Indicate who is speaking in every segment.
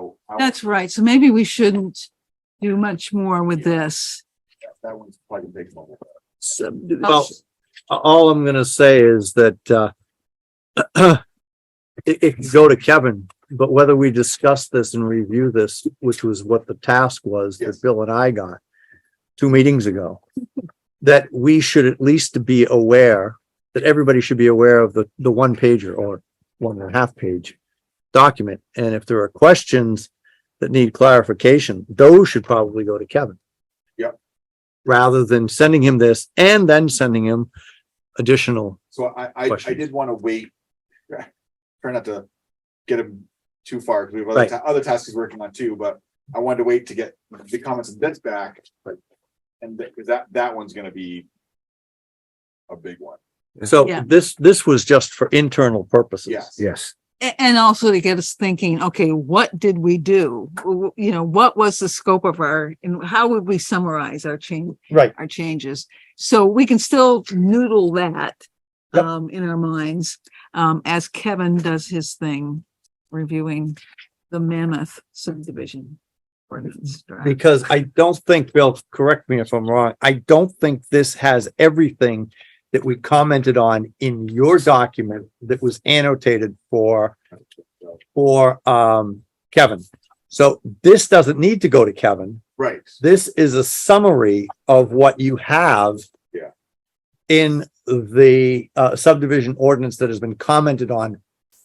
Speaker 1: so. how-
Speaker 2: That's right. So maybe we shouldn't do much more with this.
Speaker 1: That one's quite a big one.
Speaker 3: Well, a- all I'm gonna say is that, uh, it, it can go to Kevin, but whether we discuss this and review this, which was what the task was
Speaker 1: Yes.
Speaker 3: that Bill and I got two meetings ago, that we should at least be aware, that everybody should be aware of the, the one pager or one and a half page document. And if there are questions that need clarification, those should probably go to Kevin.
Speaker 1: Yep.
Speaker 3: Rather than sending him this and then sending him additional,
Speaker 1: So I, I, I
Speaker 3: Questions?
Speaker 1: did want to wait. Try not to get him too far, because we have other,
Speaker 3: Right.
Speaker 1: ta- other tasks he's working on too, but I wanted to wait to get the comments and bits back, but. And that, 'cause that, that one's gonna be. A big one,
Speaker 3: so
Speaker 2: Yeah.
Speaker 3: this, this was just for internal purposes.
Speaker 1: yes.
Speaker 4: Yes,
Speaker 2: A- And also to get us thinking, okay, what did we do? W- You know, what was the scope of our, and how would we summarize our change,
Speaker 3: Right.
Speaker 2: our changes? So we can still noodle that
Speaker 3: Yep.
Speaker 2: um, in our minds, um, as Kevin does his thing, reviewing the Mammoth subdivision. ordinance draft.
Speaker 3: Because I don't think, Bill, correct me if I'm wrong, I don't think this has everything that we commented on in your document that was annotated for for um Kevin. So this doesn't need to go to Kevin.
Speaker 1: Right,
Speaker 3: This is a summary of what you have
Speaker 1: Yeah.
Speaker 3: in the uh subdivision ordinance that has been commented on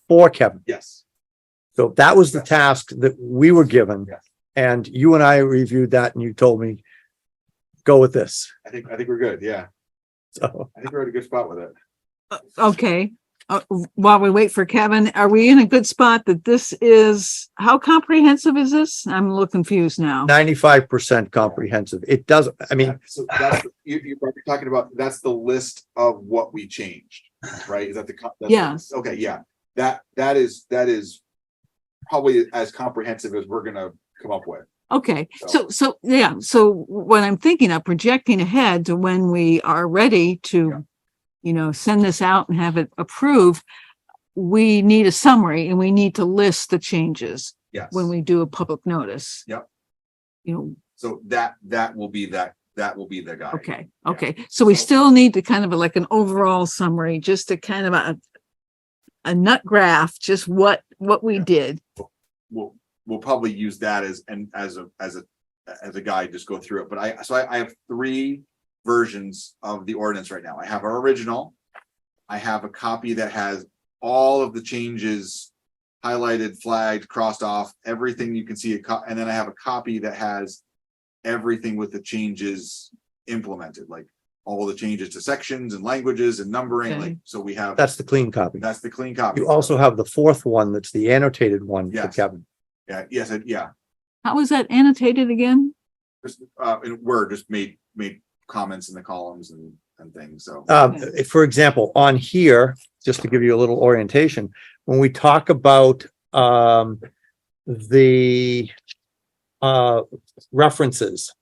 Speaker 3: for Kevin.
Speaker 1: yes,
Speaker 3: So that was the task that we were given.
Speaker 1: Yes.
Speaker 3: And you and I reviewed that and you told me, go with this.
Speaker 1: I think, I think we're good, yeah,
Speaker 3: So
Speaker 1: I think we're at a good spot with it.
Speaker 2: Okay, uh, while we wait for Kevin, are we in a good spot that this is, how comprehensive is this? I'm a little confused now.
Speaker 3: ninety-five percent comprehensive. It does, I mean,
Speaker 1: So that's, you, you're probably talking about, that's the list of what we changed, right? Is that the? co- that's the-
Speaker 2: Yes.
Speaker 1: Okay, yeah, that, that is, that is probably as comprehensive as we're gonna come up with.
Speaker 2: Okay,
Speaker 1: So-
Speaker 2: so, so, yeah, so what I'm thinking of projecting ahead to when we are ready
Speaker 1: Yeah.
Speaker 2: to, you know, send this out and have it approved, we need a summary and we need to list the changes
Speaker 1: Yes.
Speaker 2: when we do a public notice.
Speaker 1: Yep.
Speaker 2: You know,
Speaker 1: So that, that will be that, that will be the guy.
Speaker 2: Okay,
Speaker 1: Yeah.
Speaker 2: okay. So we
Speaker 1: So-
Speaker 2: still need to kind of like an overall summary, just to kind of a a nut graph, just what, what we
Speaker 1: Yeah.
Speaker 2: did.
Speaker 1: We'll, we'll probably use that as, and as a, as a, as a guide, just go through it, but I, so I, I have three versions of the ordinance right now. I have our original. I have a copy that has all of the changes highlighted, flagged, crossed off, everything you can see, a co- and then I have a copy that has everything with the changes implemented, like all the changes to sections and languages and numbering,
Speaker 2: Okay.
Speaker 1: like, so we have,
Speaker 3: that's the clean copy.
Speaker 1: that's the clean copy.
Speaker 3: You also have the fourth one that's the annotated one for
Speaker 1: Yes.
Speaker 3: Kevin.
Speaker 1: Yeah, yes, I- yeah,
Speaker 2: How was that annotated again?
Speaker 1: just, uh, in Word, just made, made comments in the columns and, and things, so.
Speaker 3: Um,
Speaker 2: Okay.
Speaker 3: for example, on here, just to give you a little orientation, when we talk about, um, the, uh, references,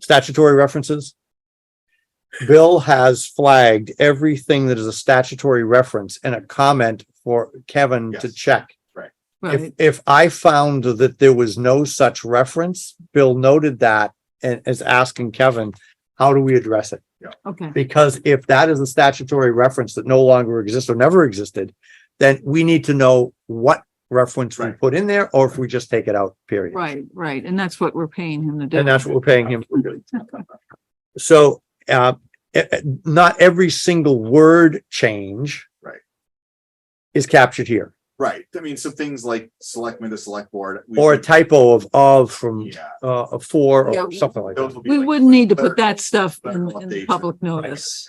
Speaker 3: statutory references, Bill has flagged everything that is a statutory reference and a comment for Kevin to
Speaker 1: Yes.
Speaker 3: check. If,
Speaker 2: Right,
Speaker 3: if I found that there was no such reference, Bill noted that and is asking Kevin, how do we address it?
Speaker 2: okay,
Speaker 3: Because if that is a statutory reference that no longer exists or never existed, then we need to know what reference we
Speaker 1: Right.
Speaker 3: put in there, or if we just take it out, period.
Speaker 2: right, right. And that's what we're paying him to do.
Speaker 3: And that's what we're paying him. for doing. So, uh, eh, eh, not every single word change.
Speaker 1: Right.
Speaker 3: Is captured here,
Speaker 1: Right, I mean, some things like selectmen to select board. we-
Speaker 3: or a typo of of from,
Speaker 1: Yeah.
Speaker 3: uh, of for
Speaker 2: Yeah.
Speaker 3: or something like
Speaker 1: those
Speaker 3: that.
Speaker 1: will be
Speaker 2: We
Speaker 1: like
Speaker 2: wouldn't need to put
Speaker 1: clerical-
Speaker 2: that stuff in,
Speaker 1: clerical updates
Speaker 2: in
Speaker 1: and-
Speaker 2: public notice.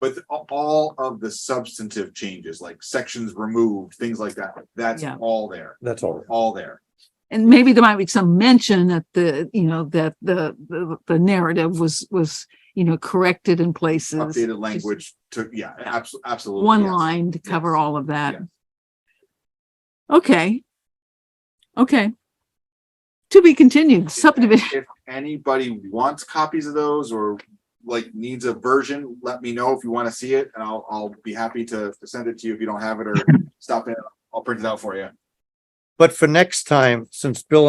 Speaker 1: But the- all of the substantive changes, like sections removed, things like that, that's
Speaker 2: Yeah.
Speaker 1: all there,
Speaker 3: That's all.
Speaker 1: all there.
Speaker 2: And maybe there might be some mention that the, you know, that the, the, the narrative was, was, you know, corrected in places.
Speaker 1: Updated language to, yeah, abso- absolutely.
Speaker 2: one
Speaker 1: yes.
Speaker 2: line to cover
Speaker 1: Yes.
Speaker 2: all of that.
Speaker 1: Yes.
Speaker 2: Okay. Okay. To be continued subdivision.
Speaker 1: If anybody wants copies of those or like needs a version, let me know if you want to see it and I'll, I'll be happy to to send it to you if you don't have it or stop in, I'll print it out for you.
Speaker 3: But for next time, since Bill and